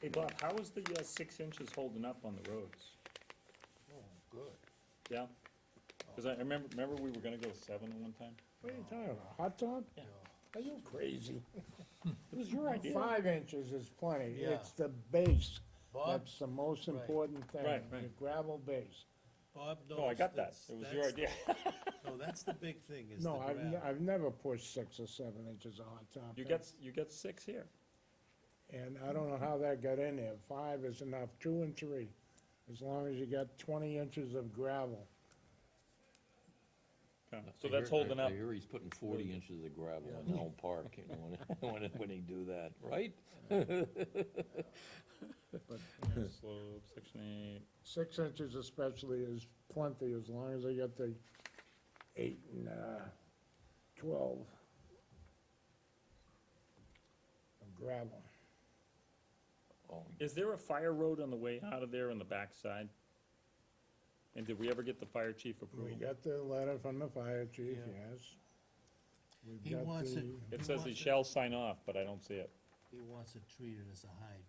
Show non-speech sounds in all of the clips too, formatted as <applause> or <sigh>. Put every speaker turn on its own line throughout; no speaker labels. Hey, Bob, how is the uh, six inches holding up on the roads?
Oh, good.
Yeah? Because I I remember, remember we were gonna go seven one time?
What are you talking about, hot dog?
Yeah.
Are you
<laughs>
crazy?
It was your idea. Right,
Five inches is plenty,
Yeah.
it's the base,
Bob,
that's the most important thing.
Right, right.
The gravel base.
Bob knows.
Oh, I got that.
that's-
It was your
that's-
idea.
No, that's the big thing, is the
No, I've,
gravel.
ne- I've never pushed six or seven inches of hot top.
<laughs> You <laughs> got, s- you got six here.
And I don't know how that got in there, five is enough, two and three, as long as you got twenty inches of gravel.
Okay,
I-
So
I
that's
hear- I-
holding up.
I hear he's putting forty inches of gravel in Elm Park, you know, when, <laughs> when, when he do that, right? <laughs>
Slope, section eight.
Six inches especially is plenty, as long as they get the eight and, uh, twelve of gravel.
Oh,
Is there a fire road on the way out of there on the backside? And did we ever get the fire chief
We
approval?
got the letter from the fire chief,
Yeah.
yes. We've
He
got
wants it,
the-
It says
he
he
wants it-
shall sign off, but I don't see it.
He wants it treated as a hydrant.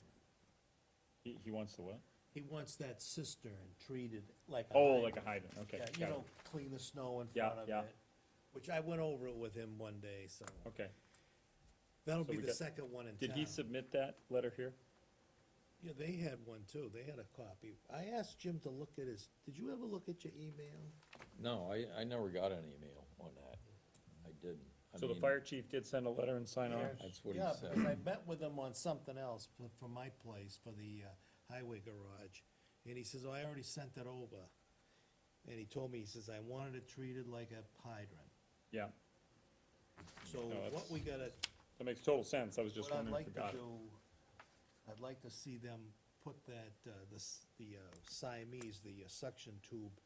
He, he wants the what?
He wants that cistern treated like a
Oh,
hydrant.
like a hydrant, okay.
Yeah, you
got it.
know, clean the snow in
Yeah,
front of
yeah.
it, which I went over it with him one day, so.
Okay.
That'll
So
be
we
the
got-
second one in town.
Did he submit that letter here?
Yeah, they had one too, they had a copy. I asked Jim to look at his, did you ever look at your email?
No, I, I never got an email on that, I didn't. I
So the
mean,
fire chief did send a letter and sign off?
Yes.
That's what he
Yeah, because I
said,
met with him on something else for, for my place, for the uh, highway garage, and he says, oh, I already sent it over. And he told me, he says, I wanted it treated like a hydrant.
Yeah,
So
No,
what
that's-
we gotta,
that makes total sense. I was just
what I'd
wondering if
like
we
to
got it.
do, I'd like to see them put that, uh, this, the uh, Siamese, the uh, suction tube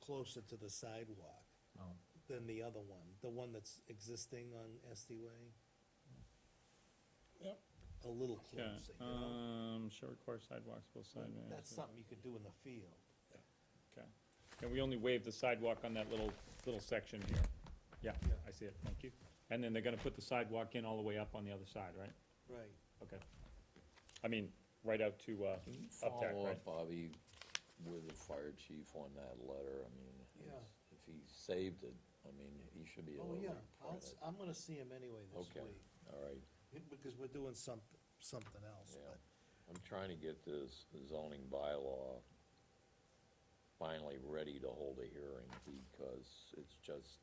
closer to the sidewalk
Oh.
than the other one, the one that's existing on Estee Way.
Yep.
A little
Yeah,
closer, you know?
um, shall require sidewalks, both
Well,
sides.
That's something you could do in the field.
Okay. And we only waived the sidewalk on that little, little section here. Yeah,
Yeah.
I see it, thank you. And then they're gonna put the sidewalk in all the way up on the other side, right?
Right.
Okay. I mean, right out to, uh,
Can you
up there,
follow
right?
up, Bobby, with the fire chief on that letter, I mean,
Yeah.
if he saved it, I mean, he should be
Oh,
able to
yeah,
reprint
I'll,
it.
s- I'm gonna see him anyway this
Okay.
week,
All right,
it- because we're doing some, something else,
Yeah.
but,
I'm trying to get this zoning bylaw finally ready to hold a hearing because it's just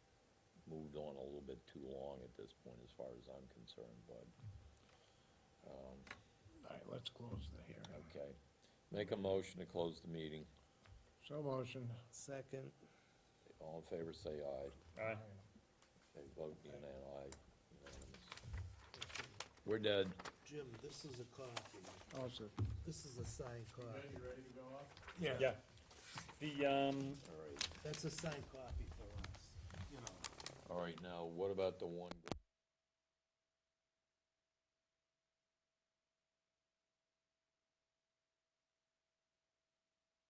moved on a little bit too long at this point as far as I'm concerned, but,
All right, let's close the hearing.
okay. Make a motion to close the meeting.
So motion.
second,
All in favor, say aye.
Aye.
They vote in and aye. Unanimous. We're dead.
Jim, this is a copy,
Also,
this is a signed copy.
Yeah. The, um,
All right.
That's a signed copy for us, you know.
All right, now, what about the one